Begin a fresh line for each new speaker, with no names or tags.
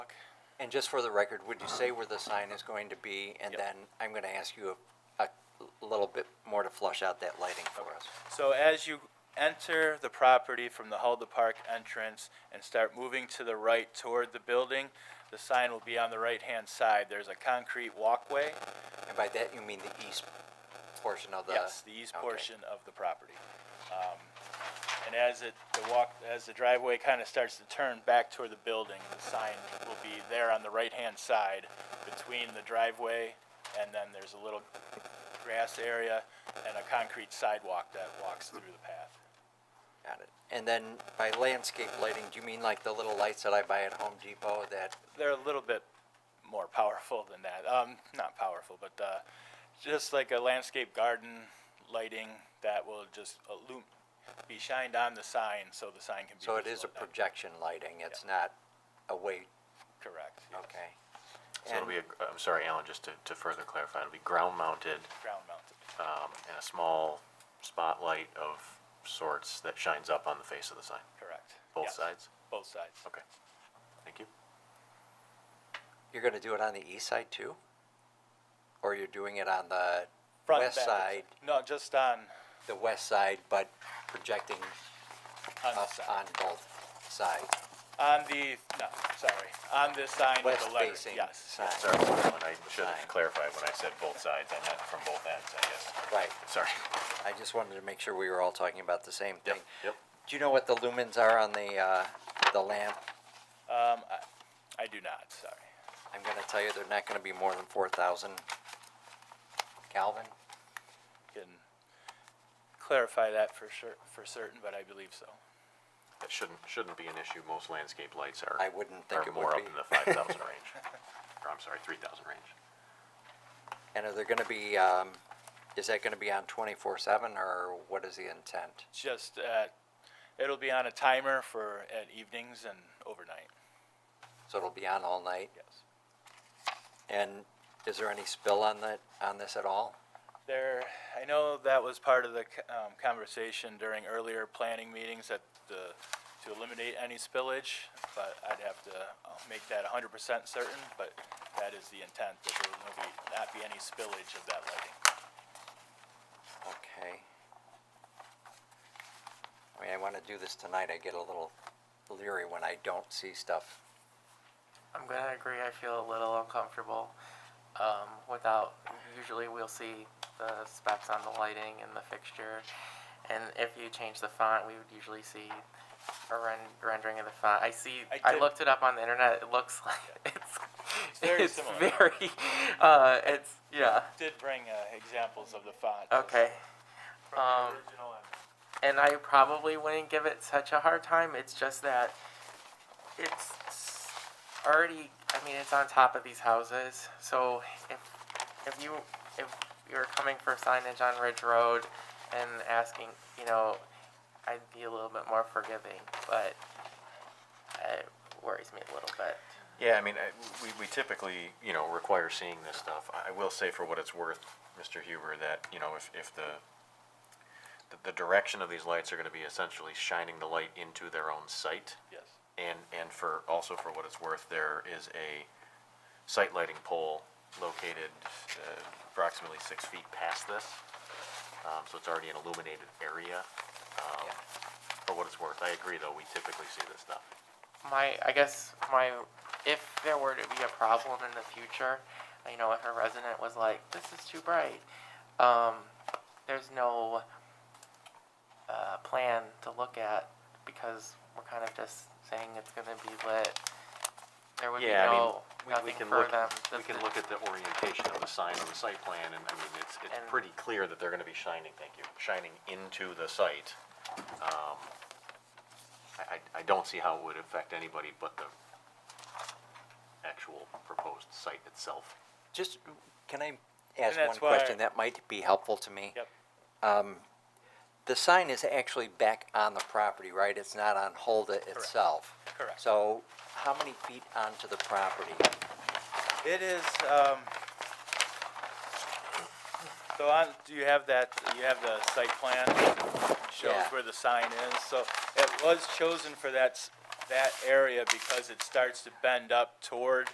And just for the record, would you say where the sign is going to be? And
Yep.
then I'm going to ask you a, a little bit more to flush out that lighting for us.
So as you enter the property from the Hulda Park entrance and start moving to the right toward the building, the sign will be on the right-hand side. There's a concrete walkway.
And by that, you mean the east portion of the?
Yes, the east
Okay.
portion of the property. Um, And as it, the walk, as the driveway kind of starts to turn back toward the building, the sign will be there on the right-hand side between the driveway, and then there's a little grass area and a concrete sidewalk that walks through the path.
Got it. And then by landscape lighting, do you mean like the little lights that I buy at Home Depot that,
They're a little bit more powerful than that. Um, not powerful, but, uh, just like a landscape garden lighting that will just illum, be shined on the sign so the sign can be
so it
visible
is a
at night.
projection lighting, it's not a way,
Correct. yes.
okay?
So
And
it'll be, a- I'm sorry, Alan, just to, to further clarify, it'll be ground mounted,
Ground mounted.
um, and a small spotlight of sorts that shines up on the face of the sign,
Correct.
both
Yes,
sides?
Both sides.
Okay, thank you.
you're going to do it on the east side too? Or you're doing it on the
Front
west
and back.
side,
No, just on
the west side, but projecting
on the
up on
side.
both sides?
On the no, sorry, on this sign with
West
the letter.
facing
Yes.
sign,
Sorry, Alan, I should
Fine.
have clarified when I said both sides, I meant from both ends, I guess.
right.
Sorry.
I just wanted to make sure we were all talking about the same thing.
Yep.
Do you know what the lumens are on the, uh, the lamp?
Um, I, I do not. Sorry.
I'm gonna tell you, they're not gonna be more than four thousand Kelvin.
Can clarify that for sure for certain, but I believe so.
That shouldn't, shouldn't be an issue, most landscape lights are,
I wouldn't think
are
it
more
would
up
be.
in the five thousand range, or I'm sorry, three thousand range.
And are they gonna be, um, is that gonna be on twenty-four seven, or what is the intent?
Just uh, it'll be on a timer for at evenings and overnight.
So it'll be on all night?
Yes.
And is there any spill on that, on this at all?
There, I know that was part of the c- um, conversation during earlier planning meetings that the, to eliminate any spillage, but I'd have to uh, make that hundred percent certain, but that is the intent, that there will be, not be any spillage of that lighting.
Okay. I mean, I wanna do this tonight, I get a little leery when I don't see stuff.
I'm gonna agree. I feel a little uncomfortable um, without. Usually, we'll see the specs on the lighting and the fixture, and if you change the font, we would usually see a ren- rendering of the font. I see.
I
I,
did-
looked it up on the internet. It looks like it's.
It's very similar.
very, uh, it's yeah.
Did bring uh, examples of the font.
Okay.
from the
um,
original and-
and I probably wouldn't give it such a hard time. It's just that it's already. I mean, it's on top of these houses. So if if you if you're coming for signage on Ridge Road and asking, you know, I'd be a little bit more forgiving, but it worries me a little bit.
Yeah, I mean, I- we, we typically, you know, require seeing this stuff. I I will say for what it's worth, Mr. Huber, that, you know, if, if the, the, the direction of these lights are gonna be essentially shining the light into their own site.
Yes,
And, and for, also for what it's worth, there is a site lighting pole located uh, approximately six feet past this. Um, so it's already an illuminated area. Um,
Yeah.
for what it's worth, I agree though, we typically see this stuff.
my I guess my if there were to be a problem in the future, you know, if a resident was like, "This is too bright," um, there's no uh, plan to look at because we're kind of just saying it's going to be lit. There would
Yeah,
be
I mean,
no
we-
nothing
We can
for
look,
them.
we can look at the orientation of the sign on the site plan, and I mean, it's, it's
And-
pretty clear that they're gonna be shining, thank you, shining into the site. Um, I, I, I don't see how it would affect anybody but the actual proposed site itself.
Just, can I ask one
And that's why-
question that might be helpful to me? Um,
yep,
The sign is actually back on the property, right? It's not on Holda itself.
correct.
So how many feet onto the property?
It is, um, so on, do you have that, you have the site plan shows
Yeah.
where the sign is? So it was chosen for that, s- that area because it starts to bend up toward